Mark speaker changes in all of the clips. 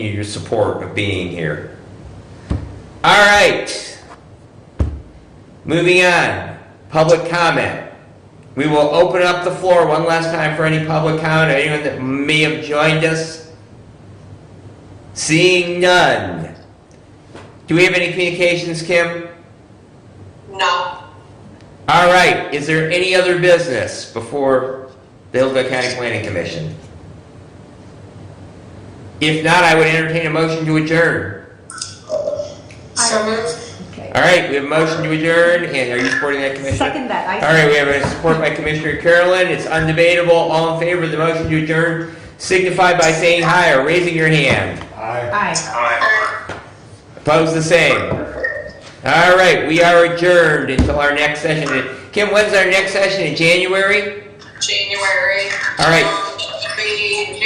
Speaker 1: you your support of being here. All right. Moving on, public comment. We will open up the floor one last time for any public comment, or anyone that may have joined us. Seeing none. Do we have any communications, Kim?
Speaker 2: No.
Speaker 1: All right, is there any other business before the Hillsborough County Planning Commission? If not, I would entertain a motion to adjourn.
Speaker 2: So moved.
Speaker 3: Okay.
Speaker 1: All right, we have a motion to adjourn, and are you supporting that, Commissioner?
Speaker 3: Second that.
Speaker 1: All
Speaker 3: I
Speaker 1: right, we have a support by Commissioner Carolyn. It's undebatable. All in favor of the motion to adjourn signify by saying aye or raising your hand.
Speaker 3: Aye.
Speaker 1: Opposed, the same. All right, we are adjourned until our next session. Kim, when's our next session? In January?
Speaker 2: January.
Speaker 1: All right.
Speaker 2: Um, The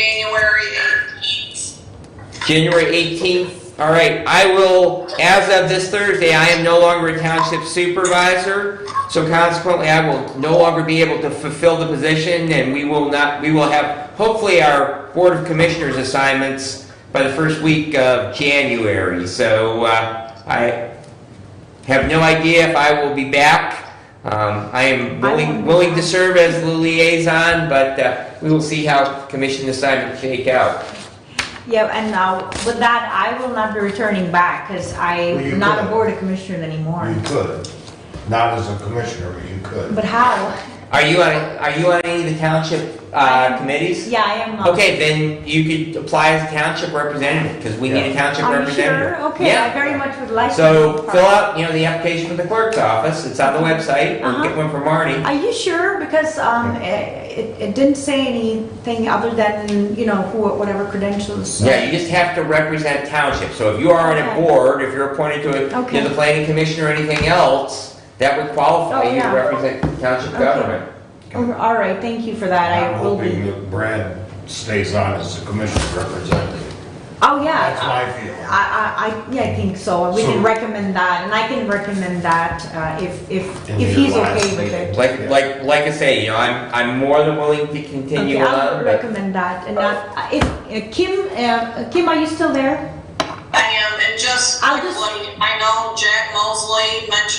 Speaker 2: January 18th.
Speaker 1: January 18th. All right, I will, as of this Thursday, I am no longer a township supervisor, so consequently, I will no longer be able to fulfill the position, and we will not, we will have, hopefully, our Board of Commissioners assignments by the first week of January. So uh, I have no idea if I will be back. Um, I am willing, willing to serve as the liaison, but uh, we will see how commission assignments shake out.
Speaker 3: Yeah, and now, with that, I will not be returning back because
Speaker 4: Well, you
Speaker 3: I'm not a
Speaker 4: could.
Speaker 3: board of commissioner anymore.
Speaker 4: You could, not as a commissioner, but you could.
Speaker 3: But how?
Speaker 1: Are you on, are you on any of the township uh, committees?
Speaker 3: Yeah, I am not.
Speaker 1: Okay, then you could apply as a township representative, because we need a township
Speaker 3: Are you
Speaker 1: representative.
Speaker 3: sure? Okay, I
Speaker 1: Yeah.
Speaker 3: very much would like. to
Speaker 1: So
Speaker 3: be
Speaker 1: fill
Speaker 3: part.
Speaker 1: out, you know, the application with the clerk's office, it's on the website, or get
Speaker 3: Uh-huh.
Speaker 1: one from Marty.
Speaker 3: Are you sure? Because um, eh, it it didn't say anything other than, you know, who, whatever credentials. so-
Speaker 1: Yeah, you just have to represent township, so if you are on a
Speaker 3: Okay.
Speaker 1: board, if you're appointed to a,
Speaker 3: Okay.
Speaker 1: to the planning commission or anything else, that would qualify
Speaker 3: Oh,
Speaker 1: you to
Speaker 3: yeah.
Speaker 1: represent township
Speaker 3: Okay.
Speaker 1: government.
Speaker 3: Oh, All right, thank you for that.
Speaker 4: I'm
Speaker 3: I will be.
Speaker 4: hoping that Brad stays on as the commissioner representative.
Speaker 3: Oh, yeah.
Speaker 4: That's my feeling.
Speaker 3: I, I, I, yeah, I think so. We
Speaker 4: So-
Speaker 3: can recommend that, and I can recommend that uh, if, if,
Speaker 4: In
Speaker 3: if
Speaker 4: your
Speaker 3: he's
Speaker 4: last
Speaker 3: okay with
Speaker 4: meeting.
Speaker 3: it.
Speaker 1: Like, like, like I say, you know, I'm, I'm more than willing to continue
Speaker 3: Okay, I
Speaker 1: on,
Speaker 3: would
Speaker 1: but
Speaker 3: recommend that, and not, if, uh, Kim, uh, Kim, are you still there?
Speaker 2: I am, and just
Speaker 3: I'll just-
Speaker 2: quickly, I know Jack Mosley mentioned